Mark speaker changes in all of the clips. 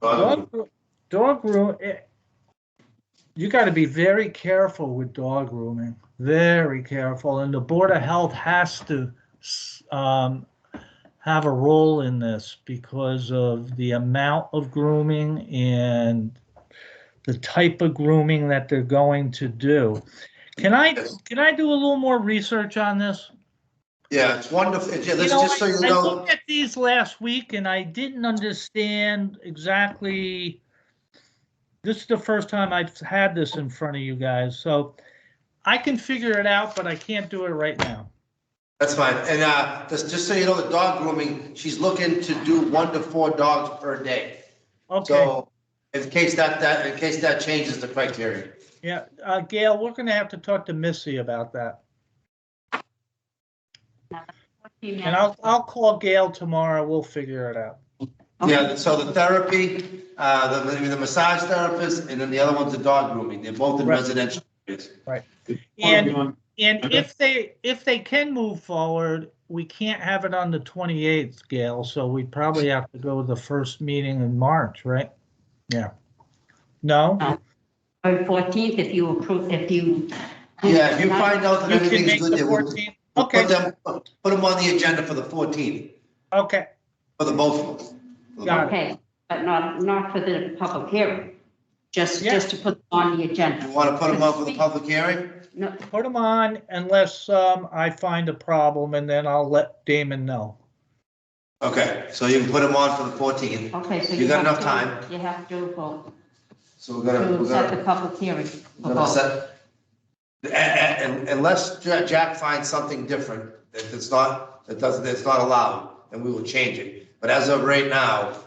Speaker 1: But
Speaker 2: Dog, roo- dog room, eh, you got to be very careful with dog grooming, very careful. And the Board of Health has to s- um, have a role in this because of the amount of grooming and the type of grooming that they're going to do. Can I,
Speaker 1: Yes.
Speaker 2: can I do a little more research on this?
Speaker 1: yeah, it's wonderful. Yeah,
Speaker 2: You
Speaker 1: this,
Speaker 2: know,
Speaker 1: just so
Speaker 2: I-
Speaker 1: you
Speaker 2: I
Speaker 1: know,
Speaker 2: looked at these last week and I didn't understand exactly. This is the first time I've had this in front of you guys, so I can figure it out, but I can't do it right now.
Speaker 1: that's fine. And, uh, just, just so you know, the dog grooming, she's looking to do one to four dogs per day.
Speaker 2: Okay,
Speaker 1: So in case that, that, in case that changes the criteria.
Speaker 2: yeah, uh, Gail, we're gonna have to talk to Missy about that. And I'll, I'll call Gail tomorrow, we'll figure it out.
Speaker 1: Yeah, so the therapy, uh, the, the massage therapist, and then the other one's the dog grooming. They're both in
Speaker 2: Right.
Speaker 1: residential areas.
Speaker 2: And,
Speaker 3: Hold on.
Speaker 2: and
Speaker 3: Okay.
Speaker 2: if they, if they can move forward, we can't have it on the 28th, Gail, so we probably have to go to the first meeting in March, right? Yeah. No?
Speaker 4: Or 14th, Oh, if you approve, if you.
Speaker 1: Yeah, if you find out that
Speaker 2: You can make
Speaker 1: everything's
Speaker 2: the
Speaker 1: good, we'll
Speaker 2: 14th?
Speaker 1: we'll
Speaker 2: Okay,
Speaker 1: put them, put them on the agenda for the 14th,
Speaker 2: okay,
Speaker 1: for the both of us.
Speaker 2: Got it.
Speaker 4: Okay, but not, not for the public hearing, just,
Speaker 2: Yeah.
Speaker 4: just to put on the
Speaker 1: You
Speaker 4: agenda.
Speaker 1: want to put them on for the public hearing?
Speaker 4: No,
Speaker 2: put them on unless um, I find a problem and then I'll let Damon know.
Speaker 1: Okay, so you can put them on for the 14th.
Speaker 4: okay, so.
Speaker 1: You got
Speaker 4: have
Speaker 1: enough
Speaker 4: to-
Speaker 1: time.
Speaker 4: You have to vote,
Speaker 1: So we're gonna,
Speaker 4: to
Speaker 1: we're
Speaker 4: set
Speaker 1: gonna,
Speaker 4: the public hearing. for
Speaker 1: we're gonna
Speaker 4: vote.
Speaker 1: set. A- a- and- Unless Ja- Jack finds something different, that it's not, that doesn't, that's not allowed, then we will change it. But as of right now,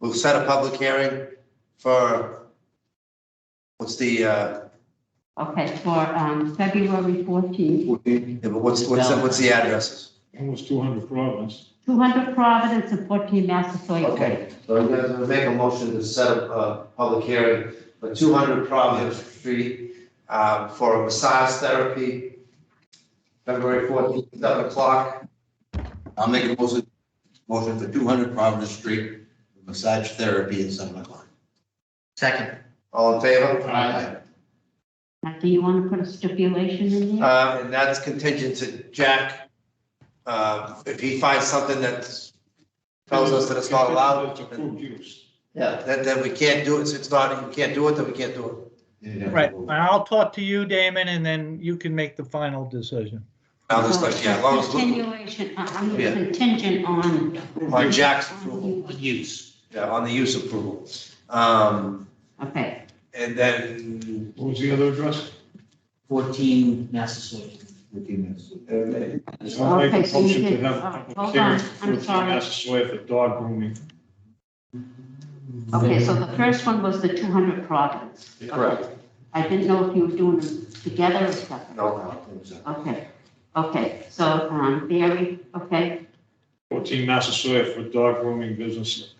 Speaker 1: we'll set a public hearing for, what's the, uh,
Speaker 4: Okay, for um, February 14th,
Speaker 3: Fourteen,
Speaker 1: yeah, but what's, what's, the- what's the addresses?
Speaker 3: Almost two hundred province.
Speaker 4: 200 Providence and 14 Massasoit Way.
Speaker 1: Okay, so I'm gonna make a motion to set up a public hearing for two hundred Providence Street uh, for massage therapy, February fourteenth, seven o'clock.
Speaker 5: I'll make a motion, motion for two hundred Providence Street, massage therapy at seven o'clock.
Speaker 6: Second,
Speaker 1: All in favor?
Speaker 3: Aye.
Speaker 4: Now, do you want to put a stipulation in there?
Speaker 1: Uh, And that's contingent to Jack. Uh, If he finds something that tells us that it's not allowed,
Speaker 3: It's approved use.
Speaker 1: yeah, then, then we can't do it, So it's not, you can't do it, then we can't do it.
Speaker 2: Right, and I'll talk to you, Damon, and then you can make the final decision.
Speaker 1: Now, it's like, yeah, as long as,
Speaker 4: Continuation, uh, I'm
Speaker 1: Yeah.
Speaker 4: contingent on.
Speaker 1: on Jack's approval,
Speaker 4: on you.
Speaker 6: use.
Speaker 1: yeah, on the use approval. Um,
Speaker 4: Okay,
Speaker 1: And then,
Speaker 3: What was the other address?
Speaker 6: 14 Massasoit.
Speaker 3: I'll make a
Speaker 4: Okay, so you
Speaker 3: motion to
Speaker 4: did-
Speaker 3: have
Speaker 4: uh,
Speaker 3: a
Speaker 4: hold
Speaker 3: public hearing
Speaker 4: on,
Speaker 3: for
Speaker 4: I'm
Speaker 3: 14
Speaker 4: sorry.
Speaker 3: Massasoit for dog grooming.
Speaker 4: okay, so the first one was the 200 Providence.
Speaker 1: correct,
Speaker 4: I didn't know if you were doing them together or separate.
Speaker 1: no,
Speaker 4: Okay, okay, so, um, Barry, okay,
Speaker 3: Fourteen Massasoit for dog grooming business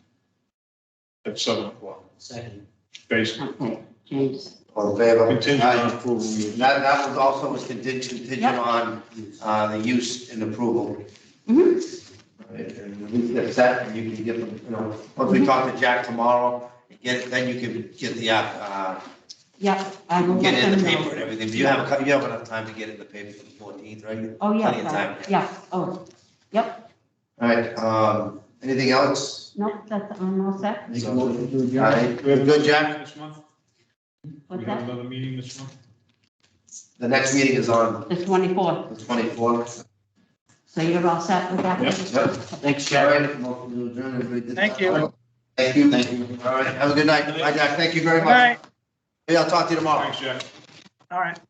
Speaker 3: at seven o'clock,
Speaker 6: Second.
Speaker 3: based
Speaker 4: okay, James.
Speaker 1: all in favor?
Speaker 3: contingent on approval use.
Speaker 1: And That, that was also was contingent, contingent
Speaker 4: Yep.
Speaker 1: on, uh, the use and approval.
Speaker 4: Mhm.
Speaker 1: And we get that, and you can get them, you know, once we talk to Jack tomorrow, get, it, then you can get the, app, uh,
Speaker 4: Yep, I will
Speaker 1: get
Speaker 4: let
Speaker 1: it in
Speaker 4: them
Speaker 1: the paper and
Speaker 4: know.
Speaker 1: everything, but you have, a cou- you have enough time to get it in the paper for the fourteenth, right?
Speaker 4: Oh,
Speaker 1: Plenty of
Speaker 4: yeah,
Speaker 1: time.
Speaker 4: yeah, oh, yep,
Speaker 1: All right, um, anything else?
Speaker 4: no, that's, I'm all set.
Speaker 5: Make a motion to
Speaker 1: All
Speaker 5: adjourn.
Speaker 1: right,
Speaker 3: We have
Speaker 1: good, Jack,
Speaker 3: This month, we
Speaker 4: What's
Speaker 3: have
Speaker 4: that?
Speaker 3: another meeting this month.
Speaker 1: the next meeting is on
Speaker 4: The 24th,
Speaker 1: the twenty-fourth.
Speaker 4: so you're all set with that?
Speaker 1: Yep.
Speaker 6: Thanks,
Speaker 1: All
Speaker 6: Jack.
Speaker 1: right, motion to adjourn, everybody did
Speaker 2: Thank
Speaker 1: that.
Speaker 2: you.
Speaker 1: Thank you.
Speaker 5: Thank
Speaker 1: All right, have a good night. Bye, Jack. Thank you very
Speaker 2: All
Speaker 1: much.
Speaker 2: right,
Speaker 1: Oh. Yeah, I'll talk to you tomorrow.
Speaker 3: Thanks, Jack.
Speaker 2: all right.